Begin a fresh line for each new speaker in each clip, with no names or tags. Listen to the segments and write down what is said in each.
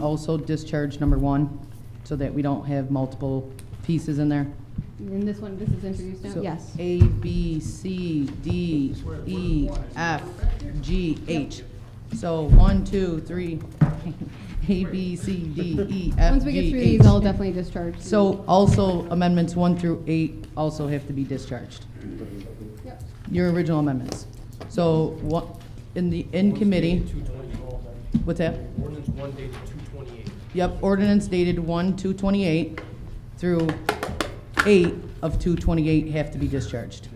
also discharge number one, so that we don't have multiple pieces in there?
And this one, this is introduced
So
now? Yes.
A, B, C, D, E, F, G, H. So one, two, three, A, B, C, D, E, F,
Once we get
G,
through
H.
these, I'll definitely discharge. them.
So also amendments one through eight also have to be discharged,
Yep.
your original amendments. So what, in the, in committee, what's that?
Ordinance one dated two twenty-eight.
Yep, ordinance dated one, two twenty-eight through eight of two twenty-eight have to be discharged.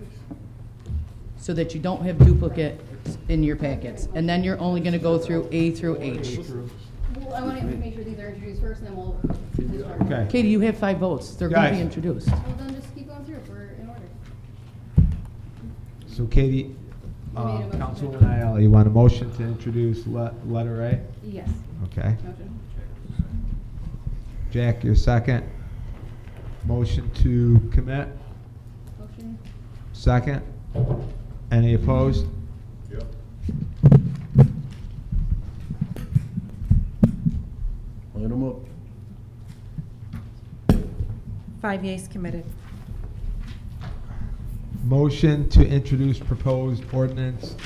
So that you don't have duplicates in your packets, and then you're only gonna go through A through H.
Well, I want to make sure these are introduced first, and then we'll discharge.
Okay.
Katie, you have five votes, they're gonna be
Guys.
introduced.
Well, then just keep going through, we're in order.
So Katie,
You made a
um,
motion.
Councilwoman Aiello, you want a motion to introduce le- letter A?
Yes,
Okay.
motion.
Jack, your second. Motion to commit,
Motion,
second. Any opposed?
Light them up.
Five yeas committed.
Motion to introduce proposed ordinance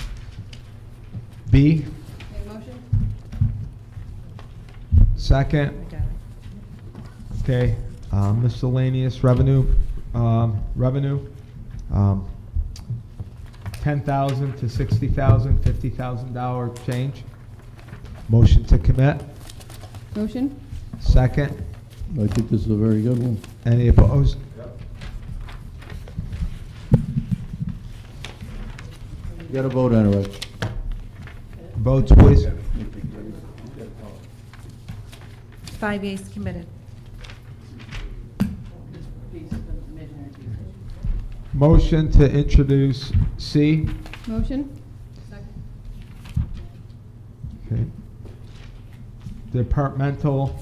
B,
make a motion?
second. Okay, um, miscellaneous revenue, um, revenue, um, ten thousand to sixty thousand, fifty thousand dollar change. Motion to commit,
Motion?
second.
I think this is a very good one.
Any opposed?
You got a vote on it, Rex.
Votes, please.
Five yeas committed.
Motion to introduce C.
Motion?
Okay. Departmental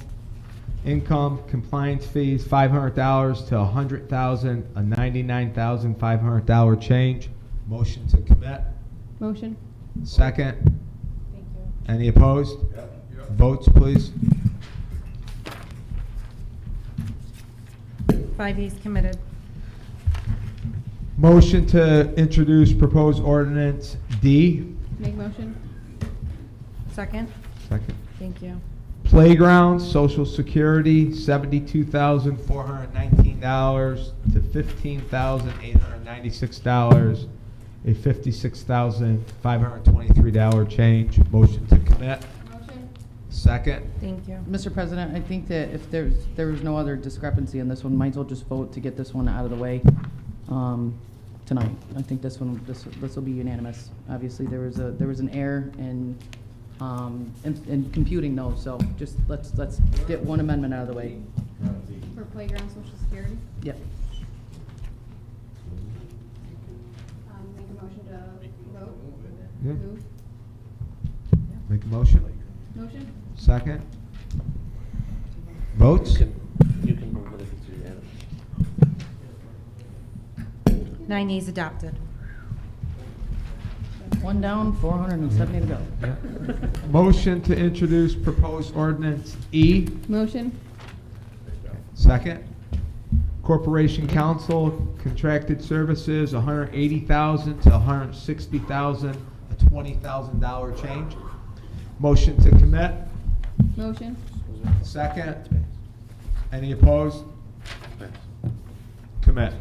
income compliance fees, five hundred dollars to a hundred thousand, a ninety-nine thousand, five hundred dollar change. Motion to commit.
Motion?
Second. Any opposed? Votes, please.
Five yeas committed.
Motion to introduce proposed ordinance D.
Make motion?
Second?
Second.
Thank you.
Playground, social security, seventy-two thousand, four hundred nineteen dollars to fifteen thousand, eight hundred ninety-six dollars, a fifty-six thousand, five hundred twenty-three dollar change. Motion to commit.
Motion?
Second.
Thank you.
Mr. President, I think that if there's, there was no other discrepancy in this one, might as well just vote to get this one out of the way um, tonight. I think this one, this, this will be unanimous. Obviously, there was a, there was an error in, um, in in computing those, so just let's, let's get one amendment out of the way.
For playground social security?
Yep.
Um, make a motion to vote?
Yeah.
Move?
Make a motion.
Motion?
Second. Votes?
You can move it if it's unanimous.
Nine yeas adopted.
One down, 470 to go.
Motion to introduce proposed ordinance E.
Motion?
Second. Corporation Council contracted services, $180,000 to $160,000, a $20,000 change. Motion to commit.
Motion?
Second. Any opposed? Commit.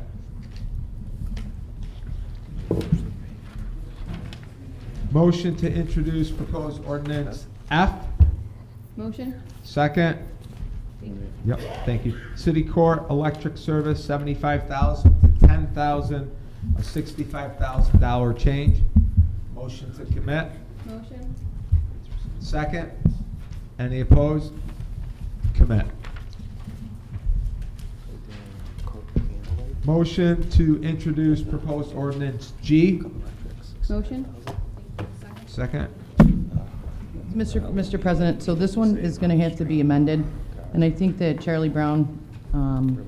Motion to introduce proposed ordinance F.
Motion?
Second. Yep, thank you. City Court Electric Service, seventy-five thousand to ten thousand, a sixty-five thousand dollar change. Motion to commit.
Motion?
Second. Any opposed? Commit. Motion to introduce proposed ordinance G.
Motion?
Second.
Mr. Mr. President, so this one is going to have to be amended, and I think that Charlie Brown um,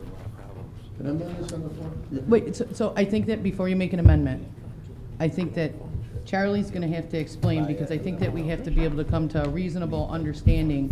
Can I amend this on the floor?
Wait, so, so I think that before you make an amendment, I think that Charlie's gonna have to explain, because I think that we have to be able to come to a reasonable understanding